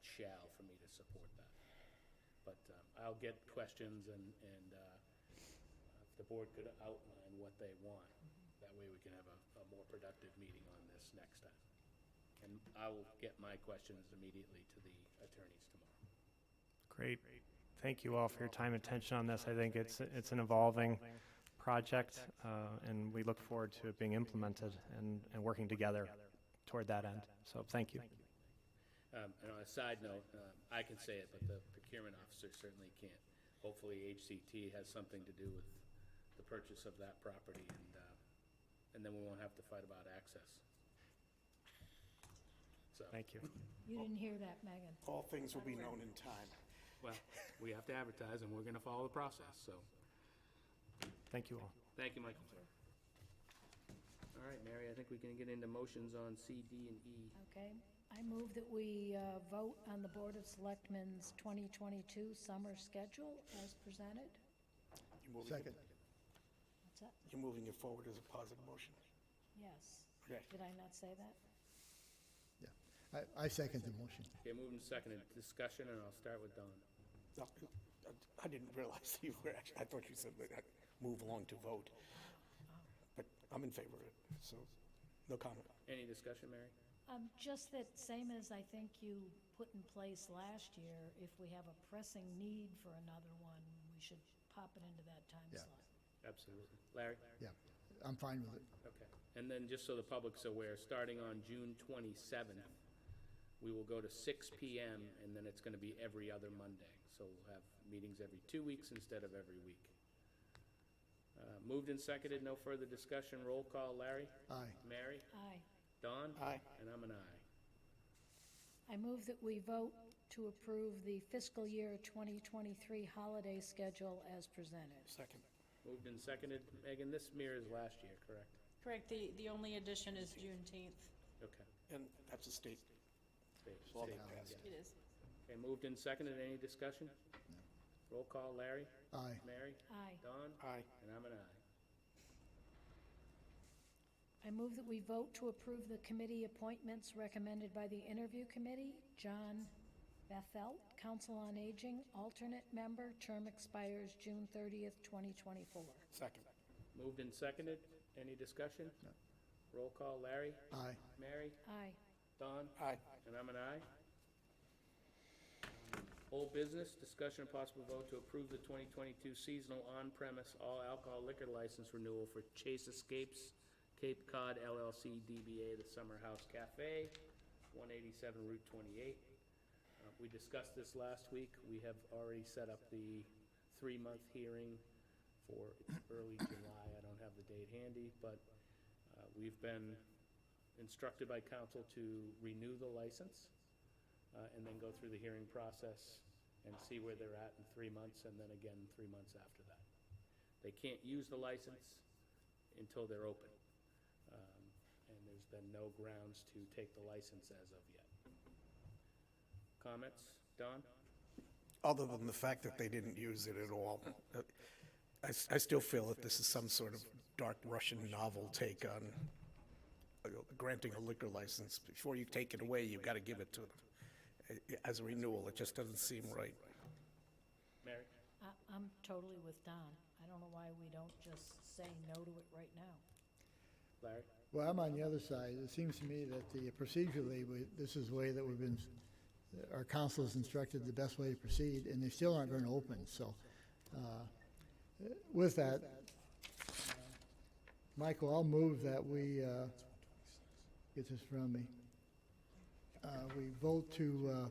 shall for me to support that. But um, I'll get questions and, and uh, if the board could outline what they want, that way we can have a, a more productive meeting on this next time. And I will get my questions immediately to the attorneys tomorrow. Great. Thank you all for your time and attention on this. I think it's, it's an evolving project, uh, and we look forward to it being implemented and, and working together toward that end. So thank you. Um, And on a side note, um, I can say it, but the procurement officer certainly can't. Hopefully, HCT has something to do with the purchase of that property, and, uh, and then we won't have to fight about access. So, Thank you. You didn't hear that, Megan. All things will be known in time. well, we have to advertise, and we're going to follow the process, so. Thank you all. Thank you, Michael. All right, Mary, I think we can get into motions on C, D, and E. Okay, I move that we uh, vote on the Board of Selectmen's 2022 summer schedule as presented. You're moving- Second. What's that? You're moving it forward as a positive motion. Yes. Okay. Did I not say that? Yeah, I, I second the motion. Okay, moving to second, discussion, and I'll start with Don. No, I- I didn't realize you were, actually. I thought you said, that I'd move along to vote. But I'm in favor of it, so no comment. Any discussion, Mary? Um, Just that same as I think you put in place last year, if we have a pressing need for another one, we should pop it into that time Yeah. slot. Absolutely. Larry? Yeah, I'm fine with it. Okay, and then just so the public's aware, starting on June twenty-seventh, we will go to six PM, and then it's gonna be every other Monday. So we'll have meetings every two weeks instead of every week. Uh, moved and seconded, no further discussion, roll call, Larry? Aye. Mary? Aye. Don? Aye. And I'm an aye. I move that we vote to approve the fiscal year 2023 holiday schedule as presented. Second. Moved and seconded, Megan, this mirrors last year, correct? Correct, the, the only addition is Juneteenth. Okay. And that's a state Stay- law stay- that passed. It is. Okay, moved and seconded, any discussion? Roll call, Larry? Aye. Mary? Aye. Don? Aye. And I'm an aye. I move that we vote to approve the committee appointments recommended by the interview committee. John Bethel, Council on Aging, alternate member, term expires June 30th, 2024. Second. Moved and seconded. Any discussion? No. Roll call, Larry? Aye. Mary? Aye. Don? Aye. And I'm an aye. Whole business, discussion and possible vote to approve the 2022 seasonal on-premise all alcohol liquor license renewal for Chase Escapes Cape Cod LLC DBA The Summer House Cafe, 187 Route 28. Uh, We discussed this last week. We have already set up the three-month hearing for it's early July. I don't have the date handy, but uh, we've been instructed by council to renew the license uh, and then go through the hearing process and see where they're at in three months, and then again, three months after that. They can't use the license until they're open. Um, And there's been no grounds to take the license as of yet. Comments? Don? Other than the fact that they didn't use it at all, uh, I, s- I still feel that this is some sort of dark Russian novel take on uh, granting a liquor license. Before you take it away, you've got to give it to them Uh, as a renewal. It just doesn't seem right. Mary? I- I'm totally with Don. I don't know why we don't just say no to it right now. Larry? Well, I'm on the other side. It seems to me that the procedurally, we- this is the way that we've been, our council has instructed the best way to proceed, and they still aren't going to open, so. uh, With that, uh, Michael, I'll move that we, uh, get this from me. Uh, We vote to, uh,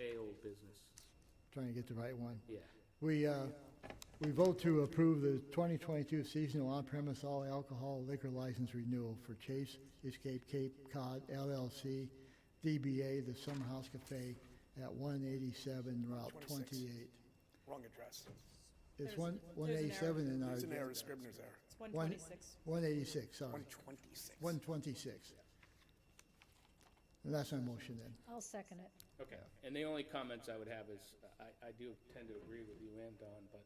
A, old business. trying to get the right one. Yeah. We, uh, we vote to approve the 2022 seasonal on-premise all alcohol liquor license renewal for Chase Escape Cape Cod LLC, DBA The Summer House Cafe at 187 Route 26. 28. Wrong address. It's There's- one there's an 187 in our. It's an error, a Scribner's error. It's one- 126. 186, sorry, 126. 126. And that's my motion then. I'll second it. Okay, and the only comments I would have is, I, I do tend to agree with you and Don, but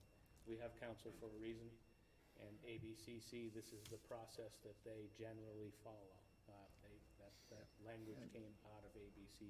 we have council for a reason. And ABCC, this is the process that they generally follow. Uh, they, that, that language came out of ABCC.